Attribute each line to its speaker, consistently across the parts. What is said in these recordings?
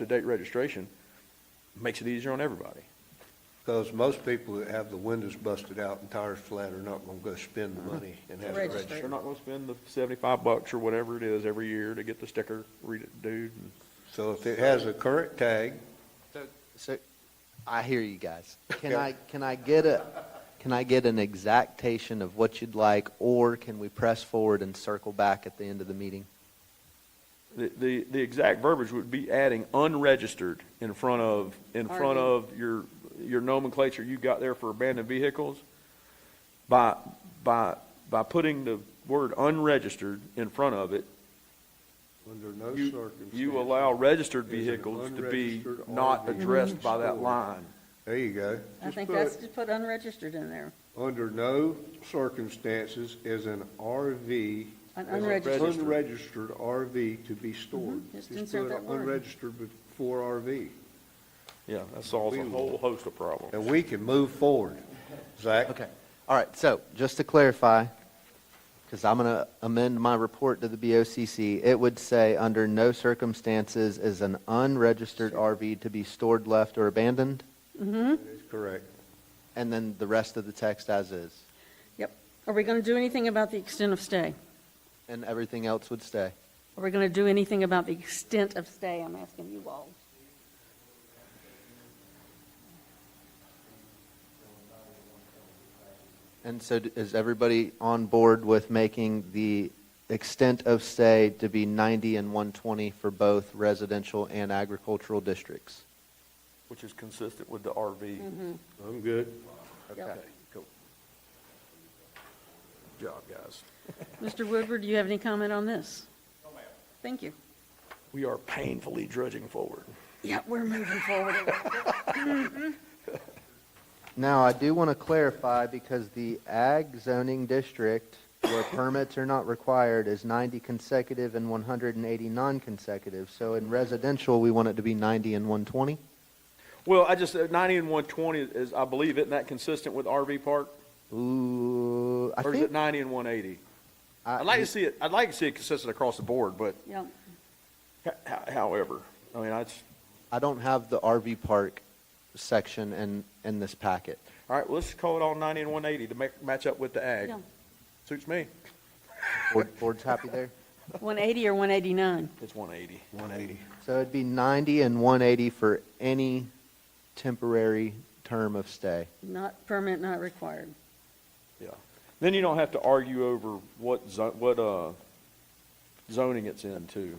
Speaker 1: to date registration makes it easier on everybody.
Speaker 2: Because most people that have the windows busted out and tires flat are not going to go spend the money and have it
Speaker 3: Register.
Speaker 2: registered.
Speaker 1: They're not gonna spend the seventy-five bucks or whatever it is every year to get the sticker read it, dude. and-
Speaker 2: So if it has a current tag,
Speaker 4: So, I hear you guys. Can
Speaker 2: Okay.
Speaker 4: I, can I get a, can I get an exactation of what you'd like, or can we press forward and circle back at the end of the meeting?
Speaker 1: The, the, the exact verbiage would be adding unregistered in front of, in front of your, your nomenclature you got there for abandoned vehicles. By, by, by putting the word unregistered in front of it,
Speaker 2: under no
Speaker 1: you,
Speaker 2: circumstances.
Speaker 1: you allow registered
Speaker 2: is an
Speaker 1: vehicles to be
Speaker 2: unregistered
Speaker 1: not
Speaker 2: RV
Speaker 1: addressed by that
Speaker 2: stored.
Speaker 1: line.
Speaker 2: There you go.
Speaker 3: I
Speaker 2: Just
Speaker 3: think
Speaker 2: put,
Speaker 3: that's, just put unregistered in there,
Speaker 2: Under no circumstances is an RV.
Speaker 3: An
Speaker 2: is an
Speaker 3: unregistered.
Speaker 2: Unregistered RV to be stored.
Speaker 3: Mhm, just
Speaker 2: put
Speaker 3: insert that word.
Speaker 2: Unregistered before RV.
Speaker 1: Yeah, that solves a whole host of problems.
Speaker 2: And we can move forward. Zach?
Speaker 4: Okay, all right, so, just to clarify, because I'm going to amend my report to the BOCC, it would say, under no circumstances is an unregistered RV to be stored, left, or abandoned,
Speaker 3: Mm-hmm.
Speaker 2: That is correct.
Speaker 4: and then the rest of the text as is,
Speaker 3: yep. Are we gonna do anything about the extent of stay?
Speaker 4: and everything else would stay.
Speaker 3: Are we gonna do anything about the extent of stay, I'm asking you all?
Speaker 4: And so d- is everybody on board with making the extent of stay to be 90 and 120 for both residential and agricultural districts?
Speaker 1: Which is consistent with the
Speaker 4: Mm-hmm.
Speaker 1: RV.
Speaker 2: I'm good.
Speaker 3: Yep.
Speaker 1: cool. Good Job, guys.
Speaker 3: Mr. Woodward, do you have any comment on this? No, ma'am. Thank you.
Speaker 1: We are painfully drudging forward.
Speaker 3: Yeah, we're moving forward.
Speaker 4: Now, I do want to clarify, because the ag zoning district where permits are not required is 90 consecutive and 180 non-consecutive. So in residential, we want it to be 90 and 120?
Speaker 1: Well, I just, uh, 90 and 120 is, I believe, isn't that consistent with RV park?
Speaker 4: Ooh, I
Speaker 1: Or is it
Speaker 4: think,
Speaker 1: 90 and 180?
Speaker 4: I-
Speaker 1: I'd like to see it, I'd like to see it consistent across the board, but
Speaker 3: Yep,
Speaker 1: h- h- however, I mean, I just,
Speaker 4: I don't have the RV park section in, in this packet.
Speaker 1: all right, well, let's call it all 90 and 180 to make, match up with the ag.
Speaker 3: yeah.
Speaker 1: Suits me.
Speaker 4: Board- Board's happy there?
Speaker 3: 180 or 189?
Speaker 1: It's 180.
Speaker 2: 180.
Speaker 4: So it'd be 90 and 180 for any temporary term of stay.
Speaker 3: Not permit, not required.
Speaker 1: Then you don't have to argue over what zo, what, uh, zoning it's in too.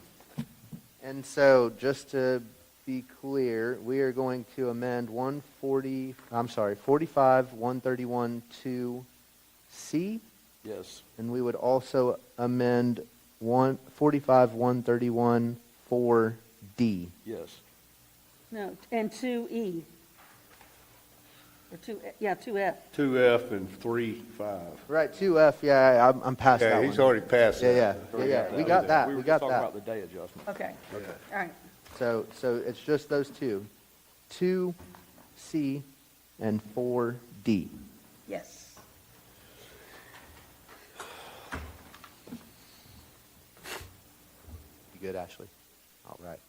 Speaker 4: And so, just to be clear, we are going to amend 140, I'm sorry, 45, 131, 2C,
Speaker 1: Yes.
Speaker 4: and we would also amend 1, 45, 131, 4D.
Speaker 1: Yes.
Speaker 3: No, and 2E. Or 2, yeah, 2F.
Speaker 2: Two F and three five.
Speaker 4: Right, 2F, yeah, I'm, I'm past that
Speaker 2: Yeah,
Speaker 4: one.
Speaker 2: he's already passed
Speaker 4: Yeah,
Speaker 2: that.
Speaker 4: yeah, yeah, yeah, we got that,
Speaker 1: were
Speaker 4: we
Speaker 1: just
Speaker 4: got
Speaker 1: Talking
Speaker 4: that.
Speaker 1: about the day adjustment.
Speaker 3: Okay, all right.
Speaker 4: So, so it's just those two, two C and four D.
Speaker 3: Yes.
Speaker 4: You good, Ashley? All right.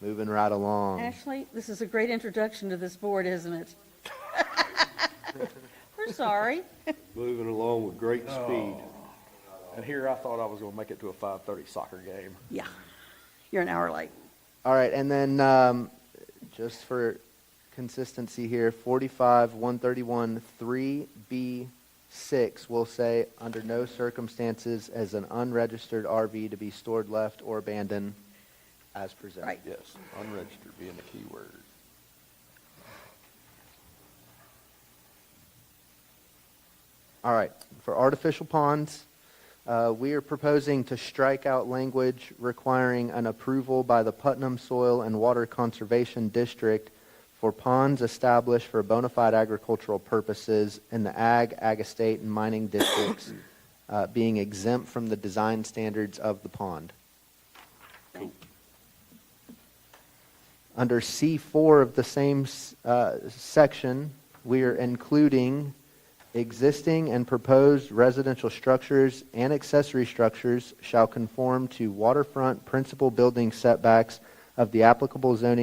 Speaker 4: Moving right along.
Speaker 3: Ashley, this is a great introduction to this board, isn't it? We're sorry.
Speaker 2: Moving along with great speed.
Speaker 1: And here I thought I was gonna make it to a 5:30 soccer game.
Speaker 3: Yeah, you're an hour late.
Speaker 4: All right, and then, um, just for consistency here, forty-five, one thirty-one, three B six will say, under no circumstances as an unregistered RV to be stored, left, or abandoned as presented.
Speaker 3: Right.
Speaker 1: Yes, unregistered being the key word.
Speaker 4: All right, for artificial ponds, uh, we are proposing to strike out language requiring an approval by the Putnam Soil and Water Conservation District for ponds established for bona fide agricultural purposes in the ag, ag estate, and mining districts uh, being exempt from the design standards of the pond. Under C4 of the same s- uh, section, we are including existing and proposed residential structures and accessory structures shall conform to waterfront principal building setbacks of the applicable zoning